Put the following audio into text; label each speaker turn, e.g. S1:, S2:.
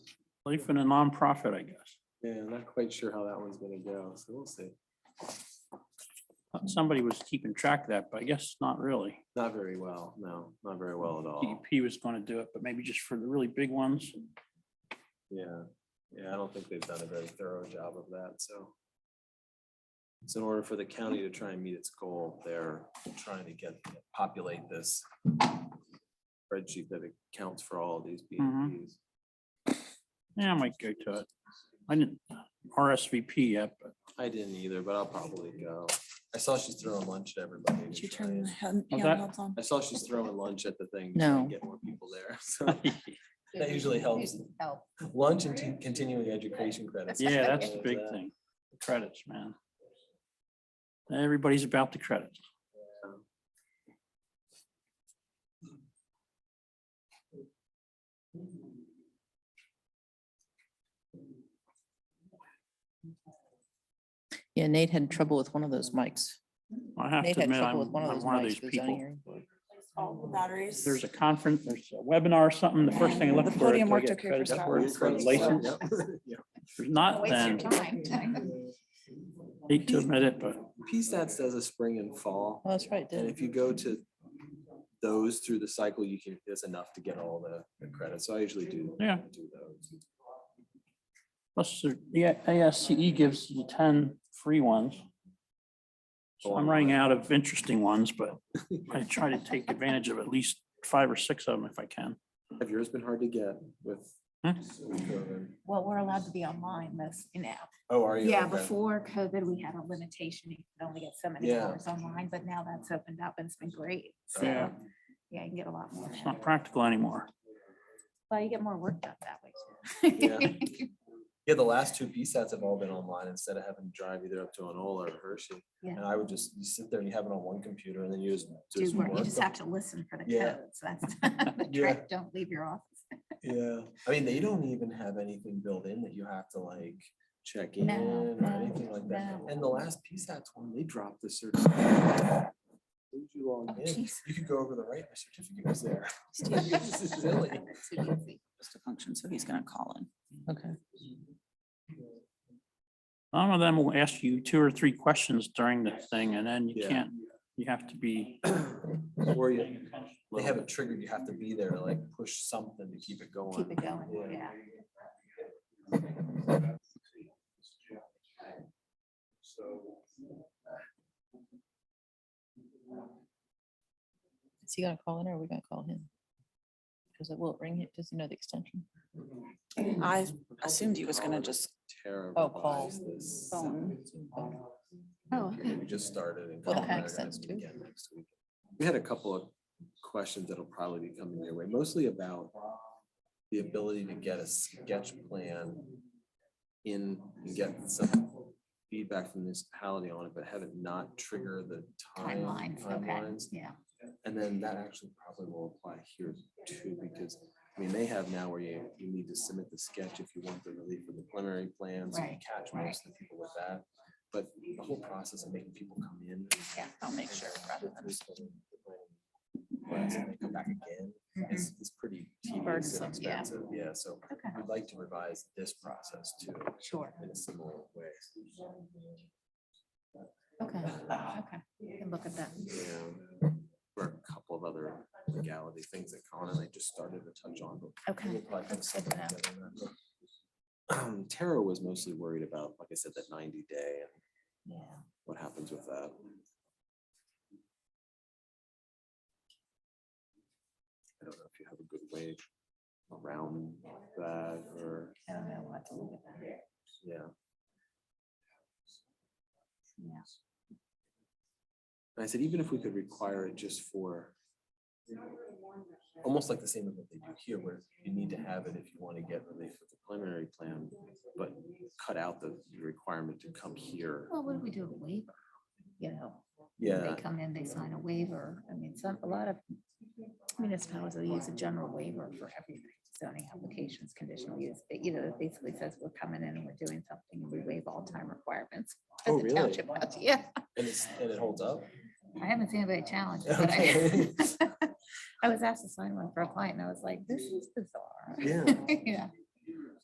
S1: Life in a nonprofit, I guess.
S2: Yeah, I'm not quite sure how that one's gonna go, so we'll see.
S3: Hmm.
S1: Somebody was keeping track of that, but I guess not really.
S2: Not very well, no, not very well at all.
S1: DEP was going to do it, but maybe just for the really big ones.
S2: Yeah, yeah, I don't think they've done a very thorough job of that, so. So in order for the county to try and meet its goal, they're trying to get, populate this spreadsheet that accounts for all of these
S1: Mhm.
S2: BEPs.
S4: Mm-hmm.
S1: Yeah, I might go to it. I didn't RSVP yet, but
S2: I didn't either, but I'll probably go. I saw she's throwing lunch at everybody. to
S4: Did you
S2: try
S4: turn the
S2: and-
S4: hand-
S1: What's that?
S4: handhelds on?
S2: I saw she's throwing lunch at the thing. to try and
S4: No.
S2: Get more people there, so. That usually helps.
S3: Help.
S2: Lunch and t- continuing education credits.
S1: yeah, that's the
S2: There's
S1: big
S2: that.
S1: thing. Credits, man. Everybody's about the credits.
S3: Yeah, Nate had trouble with one of those mics.
S1: I have
S3: Nate
S1: to
S3: had
S1: admit,
S3: trouble
S1: I'm
S3: with one of
S1: I'm
S3: those
S1: one of these
S3: mics. for the zoning
S1: people.
S3: hearing.
S4: All the batteries.
S1: There's a conference, there's a webinar or something, the first thing I
S4: The
S1: look for is
S4: podium
S1: do I
S4: worked
S1: get
S4: okay for
S1: credit
S4: Starbucks.
S1: for it, for a
S4: Yep.
S1: license. If
S2: Yeah.
S1: there's not, then hate to admit it, but
S2: PStats does a spring and fall,
S3: Oh, that's right,
S2: and
S3: did
S2: if you go to those through the cycle, you can, there's enough to get all the the credits, so I usually do.
S1: Yeah.
S2: do those.
S1: plus the A- ASCE gives you ten free ones. So I'm running out of interesting ones, but I try to take advantage of at least five or six of them if I can.
S2: Have yours been hard to get with?
S1: Hmm?
S2: with COVID?
S5: Well, we're allowed to be online most, you know.
S2: Oh, are you?
S5: Yeah,
S2: Okay.
S5: before COVID, we had a limitation. You could only get so many
S2: Yeah.
S5: hours online, but now that's opened up and it's been great. So, yeah,
S1: Yeah.
S5: you can get a lot more.
S1: It's not practical anymore.
S5: Well, you get more work done that way. too.
S2: Yeah, the last two PStats have all been online instead of having to drive either up to Anola or Hershey.
S5: Yeah.
S2: And I would just, you sit there and you have it on one computer and then you just. do
S5: Do
S2: some
S5: work. You
S2: work
S5: just
S2: on-
S5: have to listen for the
S2: Yeah.
S5: codes. That's the
S2: Yeah.
S5: trick. Don't leave your office.
S2: Yeah, I mean, they don't even have anything built in that you have to like check in
S5: No,
S2: or
S5: no,
S2: anything like that.
S5: no.
S2: And the last PSATs one, they dropped the certificate. Did you log
S5: Oh,
S2: in?
S5: jeez.
S2: You could go over the right, my certificate was there. This is silly.
S5: That's too easy.
S4: Just a function, so he's gonna call in.
S3: Okay.
S1: Some of them will ask you two or three questions during the thing and then you
S2: Yeah.
S1: can't, you have to be.
S2: Or you, they have it triggered, you have to be there, like push something to keep it going.
S5: Keep it going.
S2: Yeah.
S5: Yeah.
S3: Is he gonna call in or are we gonna call him? Because it will ring it, does he know the extension?
S4: I assumed he was gonna just,
S2: Terrible.
S3: Oh, call.
S4: Phone.
S5: Oh, okay.
S2: We just started. and
S3: Well, that
S2: Colin and I
S3: makes
S2: are gonna
S3: sense,
S2: meet
S3: too.
S2: again next week. We had a couple of questions that'll probably be coming your way, mostly about the ability to get a sketch plan in and get some feedback from municipality on it, but have it not trigger the time.
S5: Timelines. Okay.
S2: timelines.
S5: Yeah.
S2: And then that actually probably will apply here too, because, I mean, they have now where you, you need to submit the sketch if you want the relief of the preliminary plans. you
S5: Right,
S2: Catch
S5: right.
S2: most of the people with that, but the whole process of making people come in.
S5: Yeah,
S4: I'll make sure. rather than-
S2: Whereas if they come back again,
S5: Mhm.
S2: it's, it's pretty tedious and
S4: Mm-hmm. Burdensome,
S5: yeah.
S2: expensive, yeah, so
S5: Okay.
S2: I'd like to revise this process too,
S5: Sure.
S2: in a similar way.
S5: Okay.
S4: Uh,
S5: Okay. You Can look at that.
S2: Yeah, for a couple of other legality things that Colin and I just started to touch on, but
S5: Okay.
S2: We'll probably have
S5: That's good
S2: something
S5: to know.
S2: together on that, but, um, Tara was mostly worried about, like I said, that ninety day and what happens with that. I don't know if you have a good way around that or,
S5: I don't know what to look at that.
S2: yeah.
S5: Yeah.
S2: And I said, even if we could require it just for almost like the same as what they do here, where you need to have it if you want to get relief with the preliminary plan, but cut out the requirement to come here.
S5: Well, what do we do with waiver? You know,
S2: Yeah,
S5: they come in, they sign a waiver. I mean, some, a lot of municipalities will use a general waiver for everything. Zoning applications, conditional use, but you know, it basically says we're coming in and we're doing something and we waive all time requirements.
S2: Oh,
S5: as a
S2: really?
S5: township has. Yeah,
S2: and it's, and it holds up.
S5: I haven't seen anybody challenge it, but I, I was asked to sign one for a client and I was like, this is bizarre.
S2: Yeah.
S5: Yeah,